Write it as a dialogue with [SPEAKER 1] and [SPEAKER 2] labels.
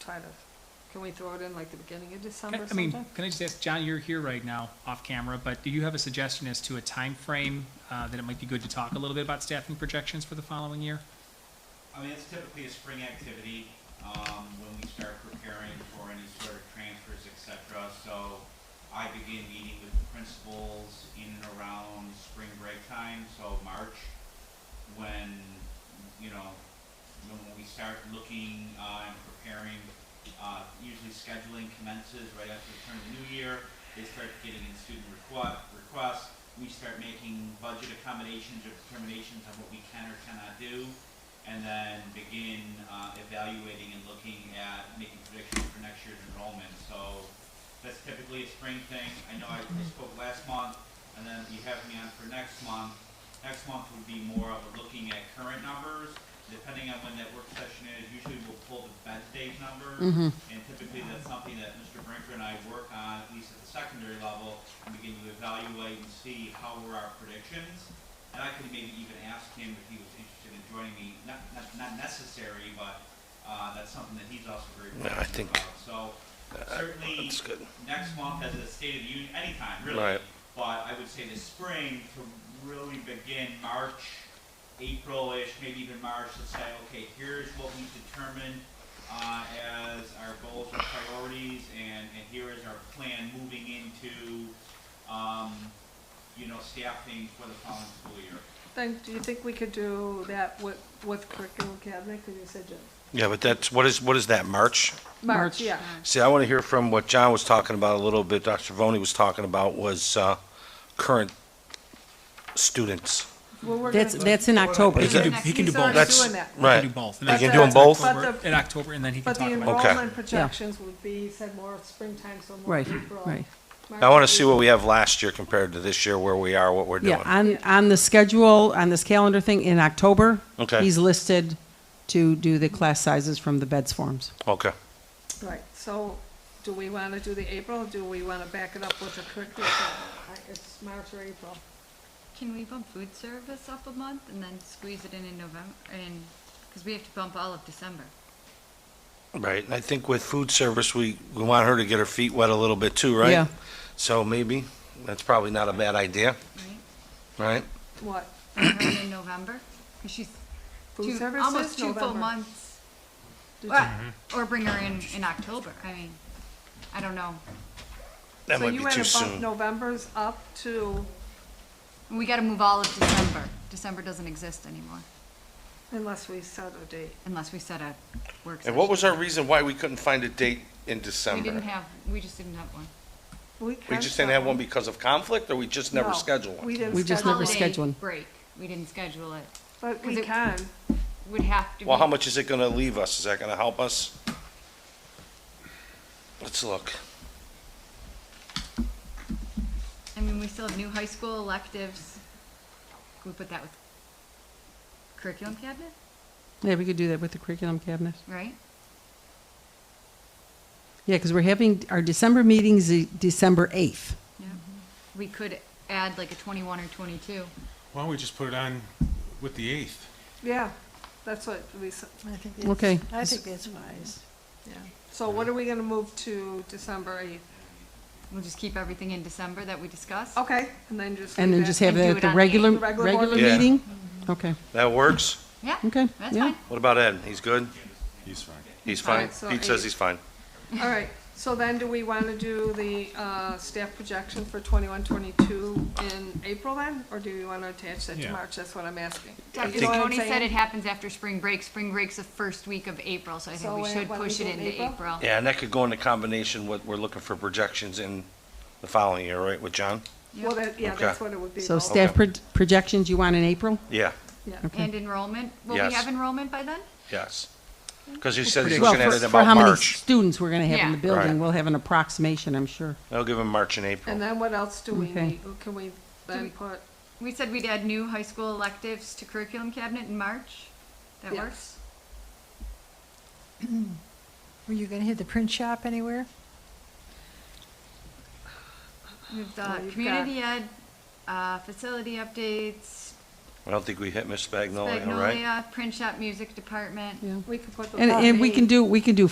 [SPEAKER 1] try to, can we throw it in like the beginning of
[SPEAKER 2] Can-
[SPEAKER 1] December
[SPEAKER 2] I mean,
[SPEAKER 1] sometime?
[SPEAKER 2] can I just ask, John, you're here right now, off camera, but do you have a suggestion as to a time frame uh, that it might be good to talk a little bit about staffing projections for the following year?
[SPEAKER 3] I mean, it's typically a spring activity, um, when we start preparing for any sort of transfers, et cetera. So I begin meeting with the principals in and around spring break time, so March, when, you know, when we start looking, uh, and preparing, uh, usually scheduling commences right after the turn of the new year. They start getting in student requ- requests, we start making budget accommodations or determinations on what we can or cannot do and then begin uh, evaluating and looking at making predictions for next year's enrollment. So that's typically a spring thing. I know I spoke last month, and then you have me on for next month. Next month would be more of a looking at current numbers, depending on when that work session is. Usually we'll pull the bed date number, and typically that's something that Mr. Brinker and I work on, at least at the secondary level, and begin to evaluate and see how were our predictions. And I could maybe even ask him if he was interested in joining me, not, not, not necessary, but, uh, that's something that he's also very
[SPEAKER 4] Yeah, I
[SPEAKER 3] passionate
[SPEAKER 4] think-
[SPEAKER 3] about. So certainly,
[SPEAKER 4] That's good.
[SPEAKER 3] next month as a State of the Union, anytime really.
[SPEAKER 4] Right.
[SPEAKER 3] But I would say this spring to really begin March, April-ish, maybe even March, to say, okay, here's what we determined uh, as our goals and priorities, and, and here is our plan moving into, um, you know, staffing for the following school year.
[SPEAKER 1] Then, do you think we could do that with, with curriculum cabinet, because you said Jan-
[SPEAKER 4] Yeah, but that's, what is, what is that, March?
[SPEAKER 1] March, yeah.
[SPEAKER 4] See, I want to hear from what John was talking about a little bit, Dr. Voni was talking about was, uh, current students.
[SPEAKER 1] Well, we're
[SPEAKER 5] That's,
[SPEAKER 1] gonna-
[SPEAKER 5] that's in October.
[SPEAKER 2] He can do-
[SPEAKER 1] Next-
[SPEAKER 2] he can do
[SPEAKER 1] he's
[SPEAKER 2] both.
[SPEAKER 1] already
[SPEAKER 4] That's-
[SPEAKER 1] doing that.
[SPEAKER 2] We
[SPEAKER 4] Right.
[SPEAKER 2] can do both.
[SPEAKER 1] But
[SPEAKER 2] and then
[SPEAKER 4] You
[SPEAKER 2] we
[SPEAKER 4] can do them
[SPEAKER 2] talk
[SPEAKER 4] both?
[SPEAKER 1] But
[SPEAKER 2] October-
[SPEAKER 1] the-
[SPEAKER 2] In October, and then he can
[SPEAKER 1] But the
[SPEAKER 2] talk about it.
[SPEAKER 1] enrollment projections would be, said more springtime, so more
[SPEAKER 5] Right,
[SPEAKER 1] April.
[SPEAKER 5] right.
[SPEAKER 1] March,
[SPEAKER 4] I want to see
[SPEAKER 1] April.
[SPEAKER 4] what we have last year compared to this year, where we are, what we're
[SPEAKER 5] Yeah,
[SPEAKER 4] doing.
[SPEAKER 5] on, on the schedule, on this calendar thing, in October,
[SPEAKER 4] Okay.
[SPEAKER 5] he's listed to do the class sizes from the beds forms.
[SPEAKER 4] Okay.
[SPEAKER 1] Right, so do we want to do the April, or do we want to back it up with the curriculum? cabinet? I- It's March or April.
[SPEAKER 6] Can we bump food service up a month and then squeeze it in in November? And because we have to bump all of December.
[SPEAKER 4] Right, and I think with food service, we, we want her to get her feet wet a little bit too, right?
[SPEAKER 5] Yeah.
[SPEAKER 4] So maybe, that's probably not a bad idea, right?
[SPEAKER 1] What,
[SPEAKER 6] Bump her in in November because she's
[SPEAKER 1] food
[SPEAKER 6] two,
[SPEAKER 1] services?
[SPEAKER 6] almost two full
[SPEAKER 1] November.
[SPEAKER 6] months.
[SPEAKER 1] Did
[SPEAKER 6] Well, Or bring her in in October. I mean, I don't know.
[SPEAKER 4] That might
[SPEAKER 1] So
[SPEAKER 4] be too
[SPEAKER 1] you want to bump
[SPEAKER 4] soon.
[SPEAKER 1] November's up to,
[SPEAKER 6] And we got to move all of December. December doesn't exist anymore
[SPEAKER 1] unless we set a date.
[SPEAKER 6] unless we set a work.
[SPEAKER 4] And what was
[SPEAKER 6] session.
[SPEAKER 4] our reason why we couldn't find a date in
[SPEAKER 6] We didn't
[SPEAKER 4] December?
[SPEAKER 6] have. We just didn't have one.
[SPEAKER 1] We
[SPEAKER 4] We
[SPEAKER 1] can
[SPEAKER 4] just didn't
[SPEAKER 1] set
[SPEAKER 4] have one because of conflict, or we just never
[SPEAKER 1] No,
[SPEAKER 4] scheduled one?
[SPEAKER 1] We didn't schedule.
[SPEAKER 5] We just never
[SPEAKER 6] Holiday
[SPEAKER 5] scheduled.
[SPEAKER 6] break. We didn't schedule it.
[SPEAKER 1] But we
[SPEAKER 6] 'cause it-
[SPEAKER 1] can,
[SPEAKER 6] Would have to.
[SPEAKER 4] Well,
[SPEAKER 6] be-
[SPEAKER 4] how much is it gonna leave us? Is that gonna help us? Let's look.
[SPEAKER 6] I mean, we still have new high school electives. Can we put that with curriculum cabinet,
[SPEAKER 5] Yeah, we could do that with the curriculum cabinet.
[SPEAKER 6] right?
[SPEAKER 5] Yeah, because we're having, our December meeting's the December 8th.
[SPEAKER 6] Yeah.
[SPEAKER 1] Mm-hmm.
[SPEAKER 6] We could add like a twenty-one or twenty-two.
[SPEAKER 7] Why don't we just put it on with the eighth?
[SPEAKER 1] yeah, that's what we, s-
[SPEAKER 8] I think
[SPEAKER 5] Okay.
[SPEAKER 8] that's, I think that's wise.
[SPEAKER 1] yeah. So what are we going to move to December 8th?
[SPEAKER 6] We'll just keep everything in December that we discussed.
[SPEAKER 1] Okay, and then just.
[SPEAKER 5] And
[SPEAKER 1] leave
[SPEAKER 5] then
[SPEAKER 1] it.
[SPEAKER 5] just have
[SPEAKER 6] And do
[SPEAKER 5] it
[SPEAKER 6] it
[SPEAKER 5] at the
[SPEAKER 6] on the
[SPEAKER 5] regular,
[SPEAKER 1] eighth. Regular board
[SPEAKER 5] regular
[SPEAKER 4] meeting. Yeah.
[SPEAKER 5] meeting? Okay.
[SPEAKER 4] That works?
[SPEAKER 6] Yeah.
[SPEAKER 5] Okay,
[SPEAKER 6] That's
[SPEAKER 5] yeah.
[SPEAKER 6] fine.
[SPEAKER 4] What about Ed? He's good?
[SPEAKER 7] He's fine.
[SPEAKER 4] He's
[SPEAKER 1] All
[SPEAKER 4] fine?
[SPEAKER 1] right, so
[SPEAKER 4] Pete says
[SPEAKER 1] eight.
[SPEAKER 4] he's fine.
[SPEAKER 1] All right, so then do we want to do the uh, staff projection for 21, 22 in April then? Or do we want to attach that to
[SPEAKER 7] Yeah.
[SPEAKER 1] March? That's what I'm asking.
[SPEAKER 6] Dr.
[SPEAKER 1] You know what I'm
[SPEAKER 6] Tony said
[SPEAKER 1] saying?
[SPEAKER 6] it happens after spring break. Spring break's the first week of April, so I think
[SPEAKER 1] So
[SPEAKER 6] we
[SPEAKER 1] when-
[SPEAKER 6] should
[SPEAKER 1] when we
[SPEAKER 6] push it
[SPEAKER 1] do
[SPEAKER 6] into
[SPEAKER 1] April?
[SPEAKER 6] April.
[SPEAKER 4] Yeah, and that could go into combination with, we're looking for projections in the following year, right, with John?
[SPEAKER 1] Well, that, yeah,
[SPEAKER 4] Okay.
[SPEAKER 1] that's what it would be.
[SPEAKER 5] So
[SPEAKER 1] both.
[SPEAKER 5] staff pro- projections you want in April?
[SPEAKER 4] Yeah,
[SPEAKER 1] Yeah.
[SPEAKER 6] And enrollment, will we
[SPEAKER 4] Yes.
[SPEAKER 6] have enrollment by then?
[SPEAKER 4] yes. Because he said he's
[SPEAKER 5] Well,
[SPEAKER 4] looking at
[SPEAKER 5] for-
[SPEAKER 4] it
[SPEAKER 5] For
[SPEAKER 4] about
[SPEAKER 5] how many
[SPEAKER 4] March.
[SPEAKER 5] students we're going to have in
[SPEAKER 6] Yeah.
[SPEAKER 5] the
[SPEAKER 4] Right.
[SPEAKER 5] building, we'll have an approximation, I'm sure.
[SPEAKER 4] I'll give him March and April.
[SPEAKER 1] And then what else do we
[SPEAKER 5] Okay.
[SPEAKER 1] need? Can we
[SPEAKER 6] Do
[SPEAKER 1] then
[SPEAKER 6] we-
[SPEAKER 1] put?
[SPEAKER 6] We said we'd add new high school electives to curriculum cabinet in March. That
[SPEAKER 1] Yes.
[SPEAKER 6] works?
[SPEAKER 8] Were you gonna hit the print shop anywhere?
[SPEAKER 6] We've
[SPEAKER 1] Well,
[SPEAKER 6] got
[SPEAKER 1] you've
[SPEAKER 6] community ed, uh, facility updates,
[SPEAKER 4] I don't think we hit Miss Magnolia, Oh, right?
[SPEAKER 6] Magnolia, print shop music department.
[SPEAKER 5] Yeah.
[SPEAKER 1] We could put the.
[SPEAKER 5] And, and we can do, we can do